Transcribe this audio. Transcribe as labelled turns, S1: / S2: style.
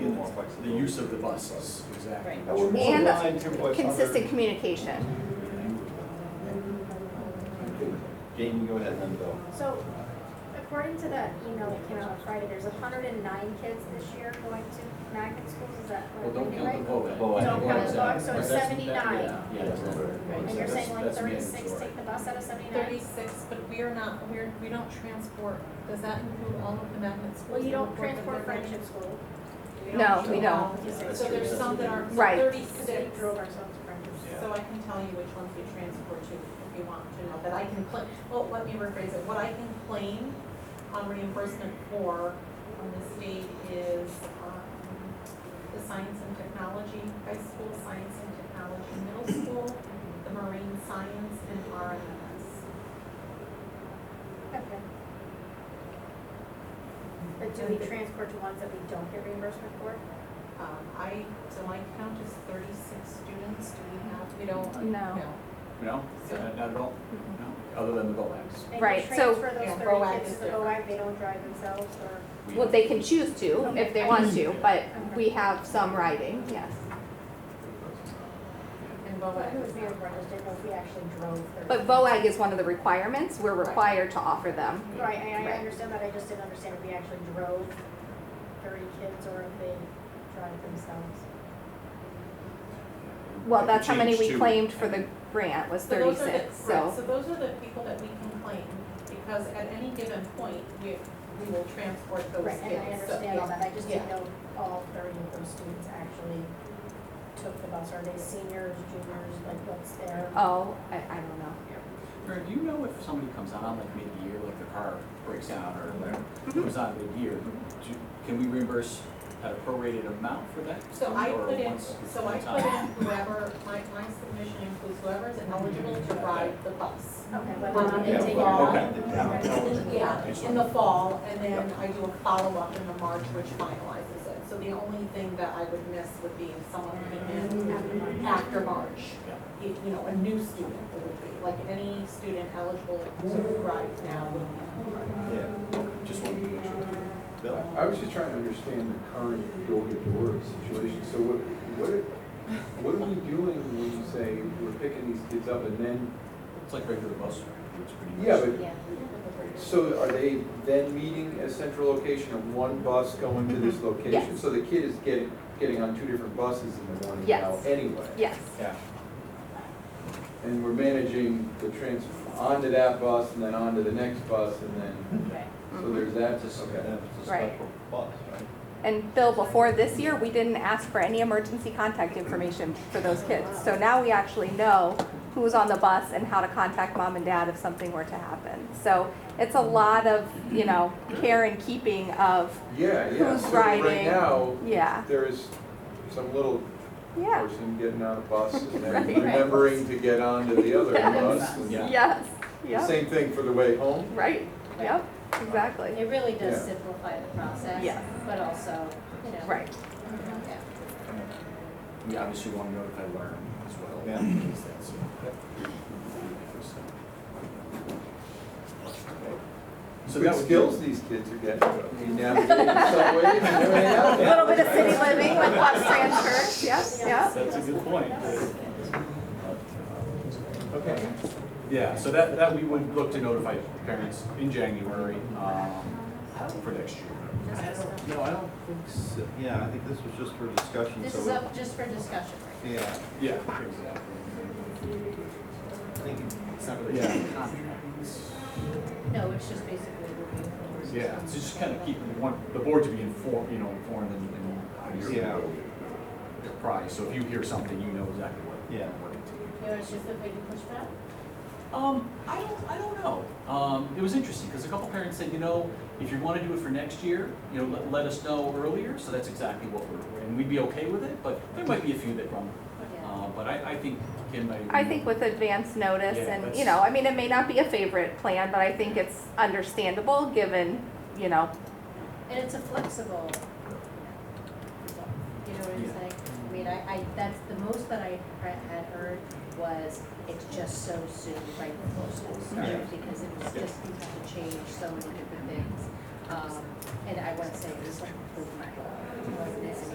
S1: the use of the buses, exactly.
S2: Right.
S3: I would more
S4: And
S3: align to what other-
S4: Consistent communication.
S3: Jamie, go ahead and then Bill.
S2: So according to that email that came out on Friday, there's hundred and nine kids this year going to magnet schools, is that
S1: Well,
S2: what I'm
S1: don't
S2: reading
S1: count the vote.
S2: right?
S3: Vote.
S2: Don't count the vote,
S1: Exactly.
S2: so
S1: That's-
S2: it's
S1: that-
S2: 79.
S1: yeah, Yeah. that's-
S2: And you're saying like
S1: that's
S2: thirty-six
S1: mandatory.
S2: take the bus out of seventy-nine?
S5: Thirty-six, but we are not, we're, we don't transport, does that include all of the magnet schools?
S2: Well, you
S5: that
S2: don't
S5: work with
S2: transport
S5: their-
S2: friendship school.
S5: We
S4: No, we don't.
S1: that's
S5: So
S1: true,
S5: there's
S1: that's
S5: some that
S1: true.
S5: are
S4: Right.
S2: Because they
S5: thirty-six,
S2: drove ourselves to friendship.
S1: Yeah.
S5: so I can tell you which ones we transport to if you want to know, that I can claim, well, let me rephrase it, what I can claim on reimbursement for from the state is, um, the science and technology, high school science and technology, middle school, the marine science, and RMS.
S2: Okay. But do we transport to ones that we don't get reimbursement for?
S5: Um, I, so my count is thirty-six students, do we have, we don't?
S4: No.
S1: No,
S5: So-
S1: not not at all, no, other than the vote acts.
S2: They can
S4: Right, so-
S2: Transfer
S5: Yeah,
S2: those
S5: BOAG
S2: thirty kids
S5: is
S2: to the
S5: different.
S2: BOAG, they don't drive themselves or?
S1: We-
S4: Well, they can choose to if they want to, but we have some writing, yes.
S5: And
S2: Well,
S5: BOAG
S2: who was
S5: is
S2: being
S5: not.
S2: reimbursed, didn't know if we actually drove thirty.
S4: But VOAG is one of the requirements. We're required to offer them.
S2: Right, I, I
S4: Right.
S2: understand that, I just didn't understand if we actually drove thirty kids or if they drive themselves.
S4: Well, that's how many we
S1: Change to-
S4: claimed for the grant was
S5: So those are the-
S4: thirty-six,
S5: right,
S4: so,
S5: So those are the people that we can claim, because at any given point, we, we will transport those kids.
S2: Right, and I
S5: So-
S2: understand all that, I just didn't
S5: Yeah.
S2: know all thirty of those students actually took the bus, are they seniors, juniors, like what's their?
S4: oh, I, I don't know.
S1: Mary, do you know if somebody comes on like mid-year, like the car breaks down or whatever, comes on mid-year, do- can we reimburse at a prorated amount for that?
S5: So I
S1: Or
S5: put in,
S1: once-
S5: so
S1: one
S5: I put
S1: time?
S5: in whoever, my, my submission includes whoever is eligible to ride the bus.
S2: Okay, whether or not they
S3: Yeah,
S2: take it
S3: well,
S2: off.
S1: okay.
S5: Yeah, in the fall, and then I do a follow-up in the March, which finalizes it. So the only thing that I would miss would be if someone came in after March.
S1: Yeah.
S5: If, you know, a new student it would be, like any student eligible to ride now would be.
S3: Yeah.
S1: Just wanted to make sure. Bill?
S6: I was just trying to understand the current building door situation, so what, what, what are we doing when you say we're picking these kids up and then,
S1: It's like regular bus, it's pretty much.
S6: yeah, but, so are they then meeting at a central location and one bus going to this location?
S4: Mm-hmm. Yes.
S6: So the kid is getting, getting on two different buses in the morning now
S4: Yes.
S6: anyway?
S4: Yes,
S1: Yeah.
S6: And we're managing the transfer onto that bus and then onto the next bus and then,
S2: Okay.
S4: Mm-hmm.
S6: so there's that,
S3: That's a,
S6: okay.
S3: that's a
S4: Right.
S3: special bus, right?
S4: and Bill, before this year, we didn't ask for any emergency contact information for those kids. So now we actually know who's on the bus and how to contact mom and dad if something were to happen. So it's a lot of, you know, care and keeping of,
S6: Yeah, yeah,
S4: Who's
S6: so
S4: riding?
S6: right now,
S4: yeah,
S6: there is some little
S4: yeah,
S6: person getting on a bus and
S4: Right.
S6: then remembering to get onto the other bus. and
S1: Yeah.
S4: yes,
S6: The
S4: yep,
S6: same thing for the way home.
S4: right, yep, exactly,
S7: It really does
S6: Yeah.
S7: simplify the process.
S4: Yeah.
S7: But also, you know.
S4: right.
S7: yeah.
S1: We obviously want to know if I learn as well.
S3: Yeah.
S1: because that's- So
S6: Good
S1: that would
S6: skills these kids are getting. You navigate the subway and everything else.
S4: A little bit of city living with bus transfers, yes, yeah.
S1: That's a good point.
S6: Okay.
S1: Yeah, so that, that we would look to notify parents in January, um, for next year. No, I don't think so.
S3: Yeah, I think this was just for discussion,
S7: This
S3: so.
S7: is
S3: it-
S7: up just for discussion, right?
S3: Yeah,
S1: Yeah, exactly.
S3: I think
S1: It's not really. Yeah.
S7: No, it's just basically reviewing.
S1: Yeah, so just kind of keep, we want the board to be informed, you know, informed and, and obviously
S3: Yeah.
S1: apprised. So if you hear something, you know exactly what.
S3: Yeah.
S1: What it is.
S7: You know, it's just that we can push back.
S1: Um, I don't, I don't know. Um, it was interesting because a couple parents said, you know, if you want to do it for next year, you know, let, let us know earlier. So that's exactly what we're, and we'd be okay with it. But there might be a few that grumble. Uh, but I, I think Kim, I.
S4: I think with advance notice
S1: Yeah,
S4: and, you
S1: that's-
S4: know, I mean, it may not be a favorite plan, but I think it's understandable given, you know,
S7: And it's a flexible. You know what I'm
S1: Yeah.
S7: saying? I mean, I, I, that's the most that I he- had heard was it's just so soon, right before school
S1: Yeah.
S7: started, because it was
S1: Yeah.
S7: just, you have to change so many different things. Um, and I wouldn't say it was like, oh my God,